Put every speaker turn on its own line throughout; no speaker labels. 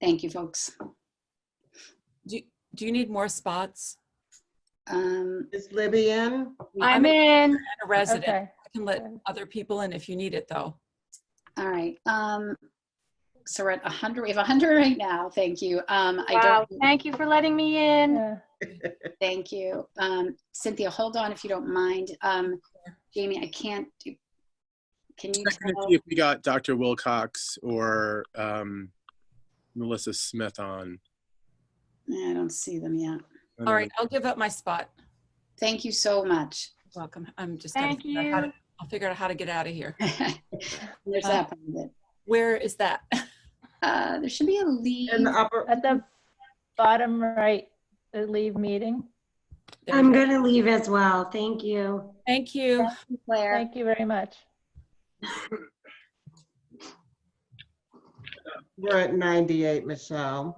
Thank you, folks.
Do, do you need more spots?
Um,
Is Libby in?
I'm in.
a resident.
Okay.
I can let
Okay.
other people in if you need it, though.
all right. Um, so we're at 100. We have 100 right now. Thank you. Um, I
Wow,
don't.
thank you for letting me in.
Thank you. Um, Cynthia, hold on if you don't mind. Um, Jamie, I can't. Do, can you
checking to
Uh-huh.
tell?
see if we got Dr. Wilcox or um, Melissa Smith on.
Yeah, I don't see them yet.
I don't
All right, I'll give up my spot.
Thank you so much.
Welcome. I'm just. gonna
Thank
figure out how
you.
to- I'll figure out how to get out of here.
There's that part of it.
Where is that?
Uh, there should be a lead.
In the upper,
At the bottom right, the leave meeting.
There we
I'm
go.
going to leave as well. Thank you.
Thank you.
Claire.
Thank you very much.
we're at 98, Michelle.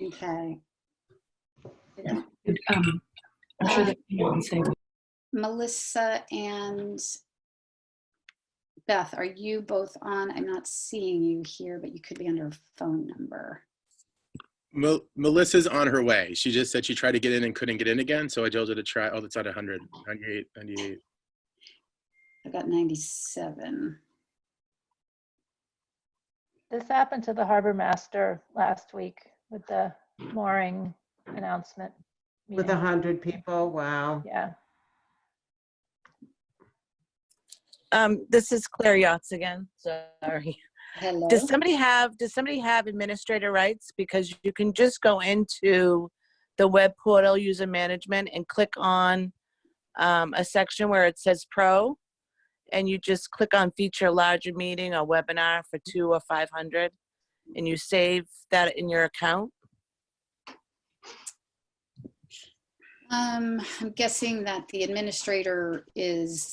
Okay.
Um, I'm sure that you can say
Melissa and Beth, are you both on? I'm not seeing you here, but you could be under a phone number.
Mel- Melissa's on her way. She just said she tried to get in and couldn't get in again, so I told her to try. Oh, that's at 100, 98, 98.
I've got 97.
This happened to the harbor master last week with the mooring announcement.
With a
meeting.
100 people, wow.
Yeah,
Um, this is Claire Yachts again. Sorry.
Hello.
Does somebody have, does somebody have administrator rights? Because you can just go into the web portal user management and click on um, a section where it says pro. And you just click on feature larger meeting or webinar for two or 500. And you save that in your account.
Um, I'm guessing that the administrator is,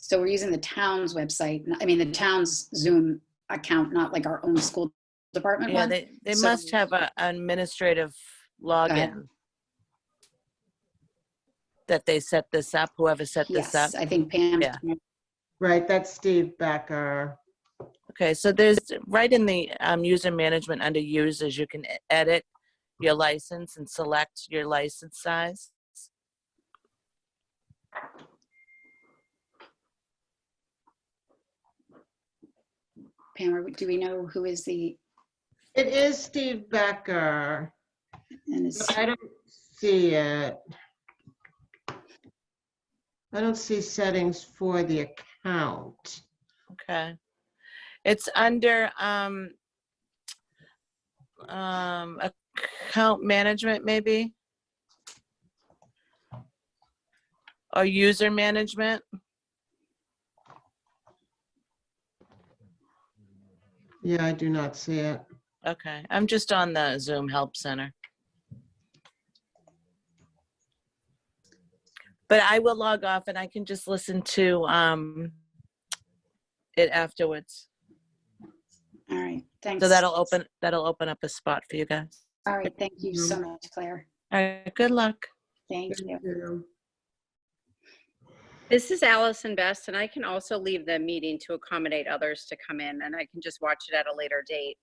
so we're using the town's website, I mean, the town's Zoom account, not like our own school department
Yeah,
one.
they, they
So-
must have a- an administrative login that they set this up, whoever set this up.
Yes, I think Pam.
Yeah.
Right, that's Steve Becker.
Okay, so there's, right in the um, user management under users, you can e- edit your license and select your license size.
Pam, are we- do we know who is the,
It is Steve Becker.
and is,
I don't see it. I don't see settings for the account.
Okay. It's under um, um, account management, maybe? Or user management?
Yeah, I do not see it.
Okay, I'm just on the Zoom Help Center. But I will log off and I can just listen to um it afterwards.
all right, thanks.
So that'll open, that'll open up a spot for you guys.
All right, thank you so much, Claire.
All right, good luck.
Thank you.
This is Allison Best, and I can also leave the meeting to accommodate others to come in, and I can just watch it at a later date.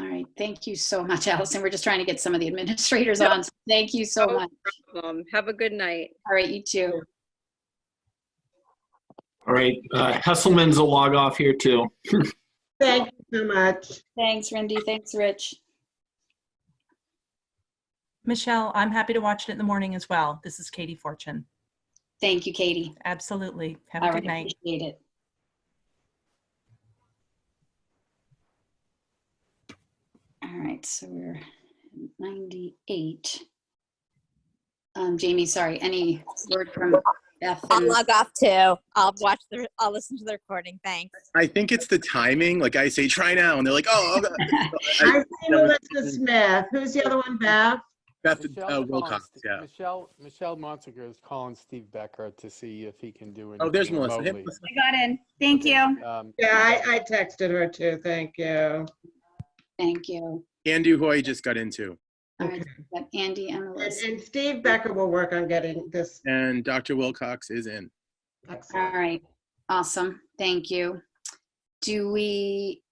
All right, thank you so much, Allison. We're just trying to get some of the administrators on. so Thank you so
No
much.
Um, Have a good night.
All right, you too.
All right, uh, Hesselman's a log off here too.
Thank you so much.
Thanks, Rindy. Thanks, Rich.
Michelle, I'm happy to watch it in the morning as well. This is Katie Fortune.
Thank you, Katie.
Absolutely. Have
All
a
right,
good night.
appreciate it. All right, so we're at 98. Um, Jamie, sorry, any word from Beth?
I'll
and-
log off too. I'll watch the, I'll listen to the recording. Thanks.
I think it's the timing. Like I say, try now, and they're like, oh, okay.
I see Melissa Smith. Who's the other one, Beth?
Beth uh,
Michelle
Wilcox.
Monst-
Yeah.
Michelle, Michelle Monziger is calling Steve Becker to see if he can do anything.
Oh, there's Melissa. Hey,
remotely.
Melissa.
I got in. Thank you.
Um,
Yeah, I, I texted her too. Thank you.
Thank you.
Andy Hoy just got in too.
All right, got Andy and
And,
Melissa.
and Steve Becker will work on getting this.
And Dr. Wilcox is in.
All right, awesome, thank you. Do we